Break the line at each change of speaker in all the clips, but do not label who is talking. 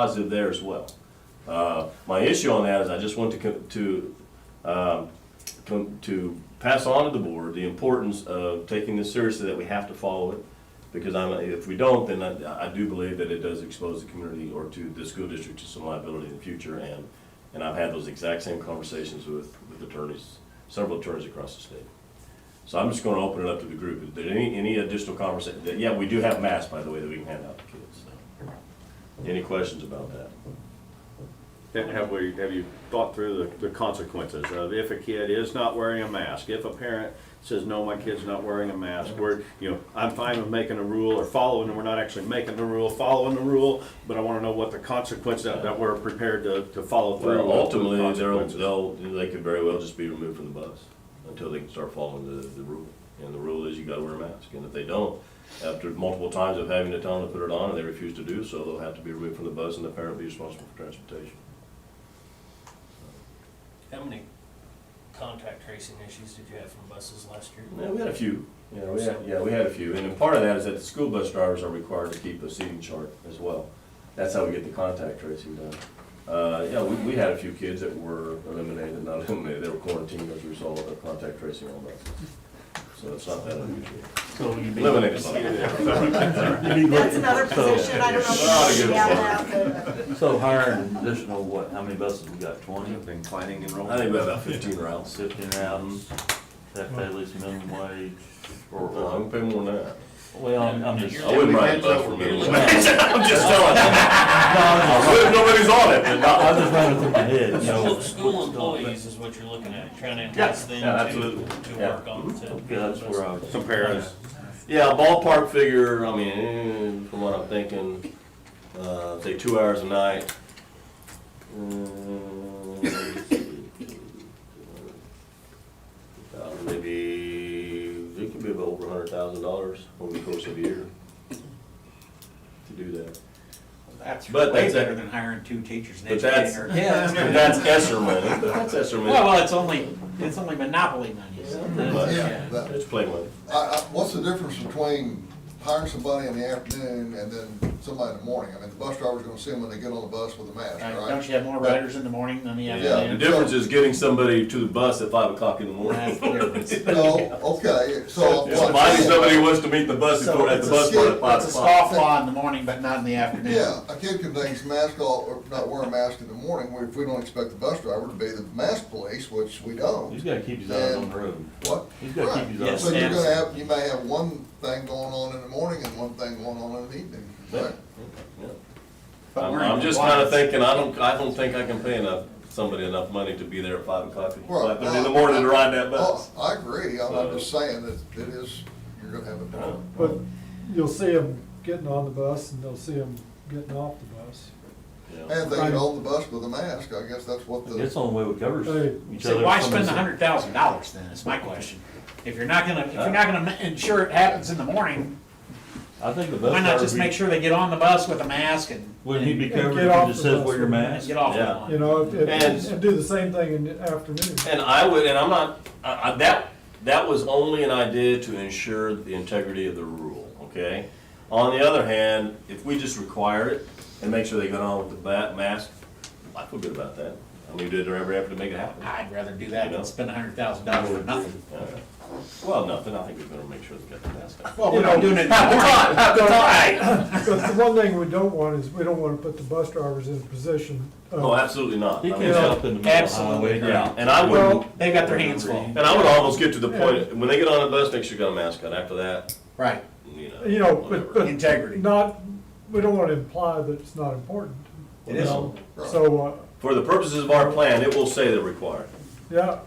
positive there as well. Uh, My issue on that is I just want to, co- to, um, com- to pass on to the board the importance of taking this seriously, that we have to follow it. Because I'm, if we don't, then I, I do believe that it does expose the community or to the school district to some liability in the future. And, and I've had those exact same conversations with, with attorneys, several attorneys across the state. So I'm just gonna open it up to the group. Is there any, any additional conversation? Yeah, we do have masks, by the way, that we can hand out to kids, so. Any questions about that?
Ha- Have we, have you thought through the, the consequences of if a kid is not wearing a mask, if a parent says, no, my kid's not wearing a mask, we're, you know, I'm fine with making a rule or following, and we're not actually making the rule, following the rule, but I wanna know what the consequence that, that we're prepared to, to follow through.
Well,
with the
ultimately, they'll,
consequences.
they'll, they could very well just be removed from the bus until they can start following the, the rule. And the rule is you gotta wear a mask, and if they don't, after multiple times of having to tell them to put it on and they refuse to do so, they'll have to be removed from the bus and the parent will be responsible for transportation.
How many contact tracing issues did you have from buses last year?
Yeah, we had a few. Yeah, we had, yeah, we had a few, and then part of that is that the school bus drivers are required to keep a seating chart as well. That's how we get the contact tracing done. Uh, yeah, we, we had a few kids that were eliminated, not eliminated, they were quarantined as a result of the contact tracing on buses. So it's not that unusual.
So you mean,
Eliminated.
you mean
That's
look-
another
So-
position, I don't know
Not a
if
good
we have that, but
so hire an additional, what, how many buses we got, twenty,
They've Been planning
I
enrollment.
think we had about fifteen rounds.
fifteen rounds, that pay at least minimum wage, or,
Well, I'm
or,
paying more than that.
well, I'm I'm just.
I wouldn't ride a bus for minimum. I'm just telling you.
No,
I would, nobody's on it, but not-
I'm just running through my head, you know.
School, school employees is what you're looking at, trying to
Yeah,
entice
yeah,
them
absolutely.
to, to
Yeah.
work on it. to-
Yeah, that's where I was.
Some parents,
Yeah, ballpark figure, I mean, eh, from what I'm thinking, uh, say two hours a night. Uh, Maybe, it could be about over a hundred thousand dollars over the course of a year to do that.
That's
But
way
that's a-
better than hiring two teachers and
But that's-
educating her.
But That's Esser money, that's Esser
Well,
money.
well, it's only, it's only monopoly money. so
But,
that's-
Yeah, but
It's play money.
I, I, what's the difference between hiring somebody in the afternoon and then somebody in the morning? I mean, the bus driver's gonna see them when they get on the bus with a mask,
Right,
right?
Don't you have more riders in the morning than the
The
afternoon?
difference is getting somebody to the bus at five o'clock in the
That's
morning.
the difference.
No, okay, so.
If
what I'm
Somebody,
saying-
somebody wants to meet the bus
So
before, at
it's
the
a
bus
skip,
at five
It's a
o'clock.
scoff law in the morning, but not in the afternoon.
Yeah, a kid can take his mask off, or not wear a mask in the morning, if we don't expect the bus driver to be the mask police, which we
He's
don't.
gotta keep his eyes on the road.
What?
He's gotta keep
Right.
his
So
eyes.
you're
and-
gonna have, you may have one thing going on in the morning and one thing going on in the evening, right?
But
I'm,
we're
I'm
in
just kinda
compliance.
thinking, I don't, I don't think I can pay enough, somebody enough money to be there at five o'clock,
Right.
five thirty in the morning to ride that
Oh,
bus.
I agree, I'm
So- Uh,
I'm just saying that it is, you're gonna have a problem.
But you'll see them getting on the bus and they'll see them getting off the bus.
Yeah.
And they get on the bus with a mask, I guess that's what
That's
the,
the only way we cover
Hey.
each
So
other.
why
from
spend
this-
a hundred thousand dollars then, is my question. If you're not gonna, if you're not gonna ma- ensure it happens in the morning,
I think the bus.
why not
driver
just
be-
make sure they get on the bus with a mask and.
Wouldn't he be
And
covered
get
if
off
he just
the
says
bus
wear your
with-
mask?
Get off
Yeah.
the lawn.
You know, and,
And-
and do the same thing in the afternoon.
And I would, and I'm not, I, I, that, that was only an idea to ensure the integrity of the rule, okay? On the other hand, if we just require it and make sure they get on with the bat, mask, I feel good about that. I mean, we did every effort to make it happen.
I'd rather do that than spend a hundred thousand dollars for nothing.
Yeah. Well, nothing, I think we're gonna make sure they get the mask on.
Well, we're not doing it in the morning.
But the one thing we don't want is, we don't wanna put the bus drivers in a position uh,
No,
of,
Oh, absolutely not.
He
I
can't
mean,
help in the middle of the
Absolutely.
highway.
Yeah, and I wouldn't,
well,
They've got their hands full.
And I would almost get to the point, when they get on the bus, make sure you got a mask on, after that,
Right.
you know.
you know, but,
whatever.
but
Integrity.
not, we don't wanna imply that it's not important.
It is.
No.
right,
So, uh,
For the purposes of our plan, it will say they're required,
yeah,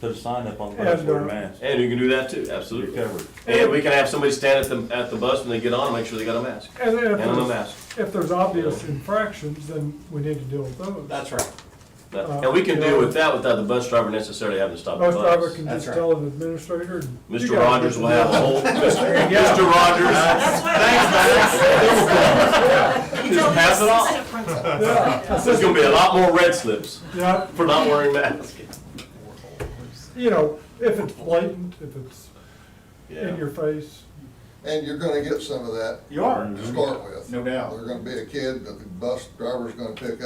Put a sign up on the bus,
And,
wear a
uh,
mask,
and you can do that too,
you're
absolutely.
covered.
And we can have somebody stand at the, at the bus when they get on, make sure they got a mask,
and then if
and a
there's,
mask.
if there's obvious infractions, then we need to deal with those.
That's right.
Uh,
That- And we can deal with that without the bus driver necessarily having to stop the
Bus driver
bus.
can
That's
just
right.
tell an administrator. and you
Mr.
gotta
Rogers
get
will have a
the-
whole, Mr. Rogers,
that's what. Thanks, man.
Just pass it off.
Yeah,
there's gonna be a lot more red slips
yeah,
for not wearing masks.
you know, if it's blatant, if it's in your face,
And you're gonna get some of that
You are.
Mm-hmm.
to start with.
No doubt.
There's gonna be a kid that the bus driver's gonna pick